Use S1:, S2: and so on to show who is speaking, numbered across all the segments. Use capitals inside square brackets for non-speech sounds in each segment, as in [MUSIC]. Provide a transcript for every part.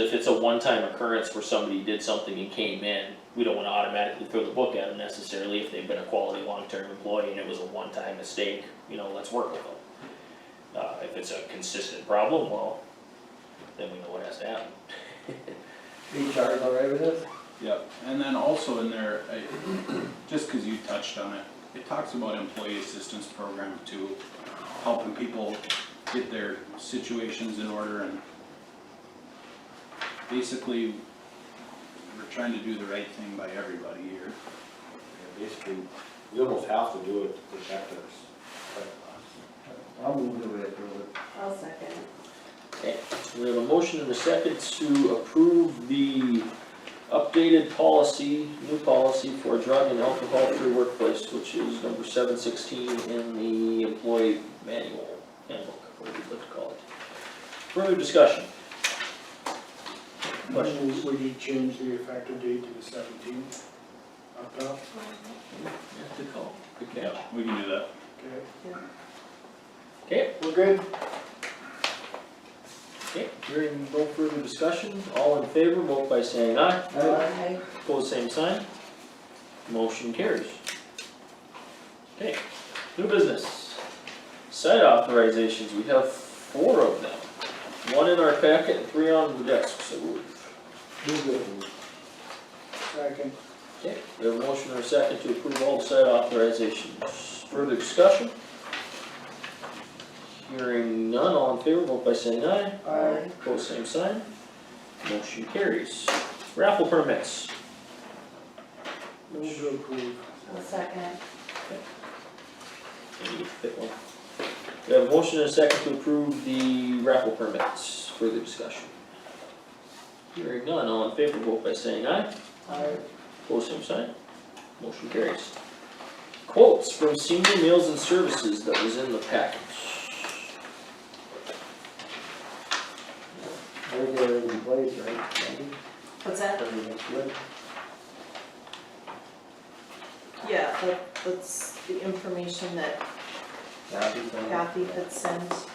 S1: If it's a one-time occurrence where somebody did something and came in, we don't wanna automatically throw the book at them necessarily if they've been a quality long-term employee and it was a one-time mistake, you know, let's work with them. Uh, if it's a consistent problem, well, then we know what has to happen.
S2: HR is all right with this?
S3: Yep, and then also in there, I, just cause you touched on it, it talks about employee assistance program too, helping people get their situations in order and basically, we're trying to do the right thing by everybody here.
S4: Yeah, Basically, we almost have to do it to protect us.
S2: I'll move the way through it.
S5: I'll second.
S1: We have a motion and a second to approve the updated policy, new policy for drug and alcohol-free workplace, which is number seven sixteen in the employee manual handbook, whatever you'd like to call it. Further discussion? Questions?
S6: Would you change the effective date to the seventeenth? Up top,
S1: Good call. Good
S3: Yeah,
S1: catch.
S3: we can do that.
S6: okay?
S1: Okay,
S6: We're good?
S1: okay, hearing no further discussion, all in favor, vote by saying aye.
S2: Alright,
S5: Aye.
S1: Pose same sign. Motion carries. Okay, new business. Site authorizations, we have four of them. One in our packet and three on the desk, so we-
S6: We're good. Second.
S1: okay. We have a motion or a second to approve all the site authorizations. Further discussion? Hearing none, all in favor, vote by saying aye.
S6: Aye.
S1: Pose same sign. Motion carries. Raffle permits.
S6: Move to approve.
S5: I'll second.
S1: Maybe fit one. We have a motion and a second to approve the raffle permits, further discussion. Hearing none, all in favor, vote by saying aye,
S6: Aye.
S1: Post same sign, motion carries. Quotes from senior meals and services that was in the package.
S2: They're already in place, right? Andy?
S5: What's that?
S2: Everything's good.
S5: Yeah, that, that's the information that
S2: Kathy's on it.
S5: Kathy had sent.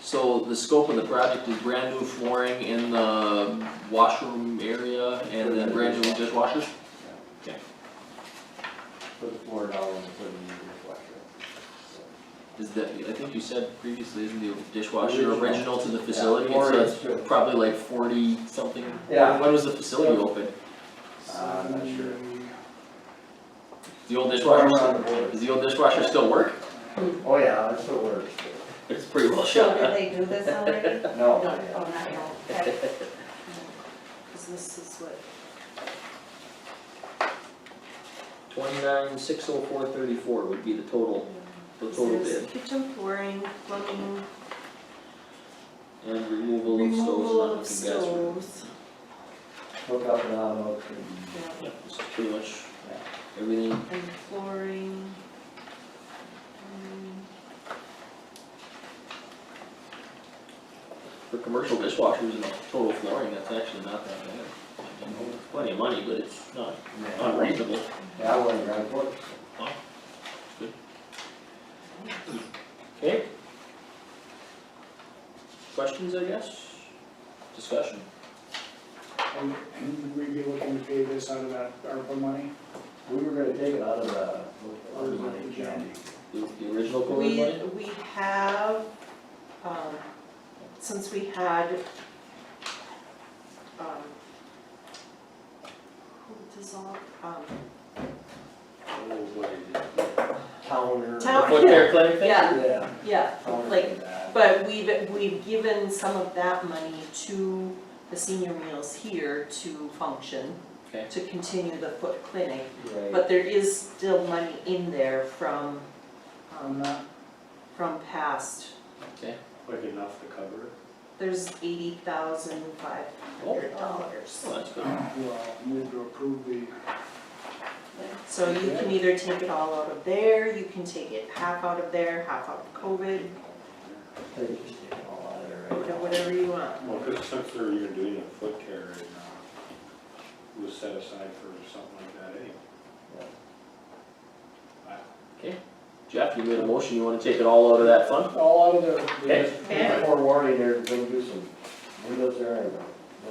S1: So the scope of the project is brand new flooring in the washroom area and then brand new dishwashers?
S2: Put the floor down and put it in the dishwasher.
S1: Is that, I think you said previously, isn't the dishwasher
S2: Original.
S1: original to the facility,
S2: Yeah,
S1: so
S2: or
S1: it's
S2: it's true.
S1: probably like forty something?
S2: Yeah.
S1: When was the facility open?
S2: Uh, I'm not sure.
S1: The old
S2: Right
S1: dishwasher,
S2: around the
S1: still-
S2: board.
S1: does the old dishwasher still work?
S2: Oh, yeah, that's what works.
S1: It's pretty well
S5: So
S1: shut.
S5: did they do this already?
S2: No,
S5: No,
S2: yeah.
S5: oh, not no, okay. Cause this is what,
S1: [LAUGHS] Twenty-nine, six oh four, thirty-four would be the total, the total
S5: there's
S1: bid,
S5: kitchen flooring, plumbing,
S1: and removal of
S5: removal of
S1: stoves and electric gas. work.
S2: Look
S5: stoves.
S2: up and out, look and.
S5: Yeah,
S1: Yeah, this is pretty much
S2: Yeah.
S1: everything,
S5: and flooring. um,
S1: for commercial dishwashers and total flooring, that's actually not that bad. It's Plenty of money, but it's not
S2: Yeah.
S1: unreasonable.
S2: Yeah, I wouldn't grab it.
S1: Okay. Questions, I guess? Discussion?
S6: And and would we be looking to pay this out of that ARPA money?
S2: We were gonna take it out of the,
S6: Or
S2: out of
S6: is
S2: the
S6: it
S2: money,
S6: the
S2: John.
S1: The, the original COVID
S5: We,
S1: money?
S5: we have, um, since we had, um, who dissolved, um,
S2: Counter.
S5: Town-
S1: Foot care clinic thing?
S5: yeah,
S2: Yeah.
S5: [LAUGHS] yeah,
S2: counter
S5: Like,
S2: to that.
S5: but we've, we've given some of that money to the senior meals here to function,
S1: Okay.
S5: to continue the foot clinic,
S2: Right.
S5: but there is still money in there from,
S6: I'm
S5: um,
S6: not,
S5: from past,
S4: Quick enough to cover it.
S5: there's eighty thousand five hundred dollars.
S1: Well, that's good.
S6: well, move to approve the,
S5: So you can either take it all out of there, you can take it half out of there, half out of COVID,
S2: They just take it all out of there right
S5: you know, whatever you want.
S4: Well, because since they're even doing a foot care right now, it was set aside for something like that anyway.
S1: Jeff, you made a motion, you wanna take it all out of that fund?
S6: all out of the,
S1: Okay.
S6: the
S2: Before warning, they're gonna do some windows there anyway.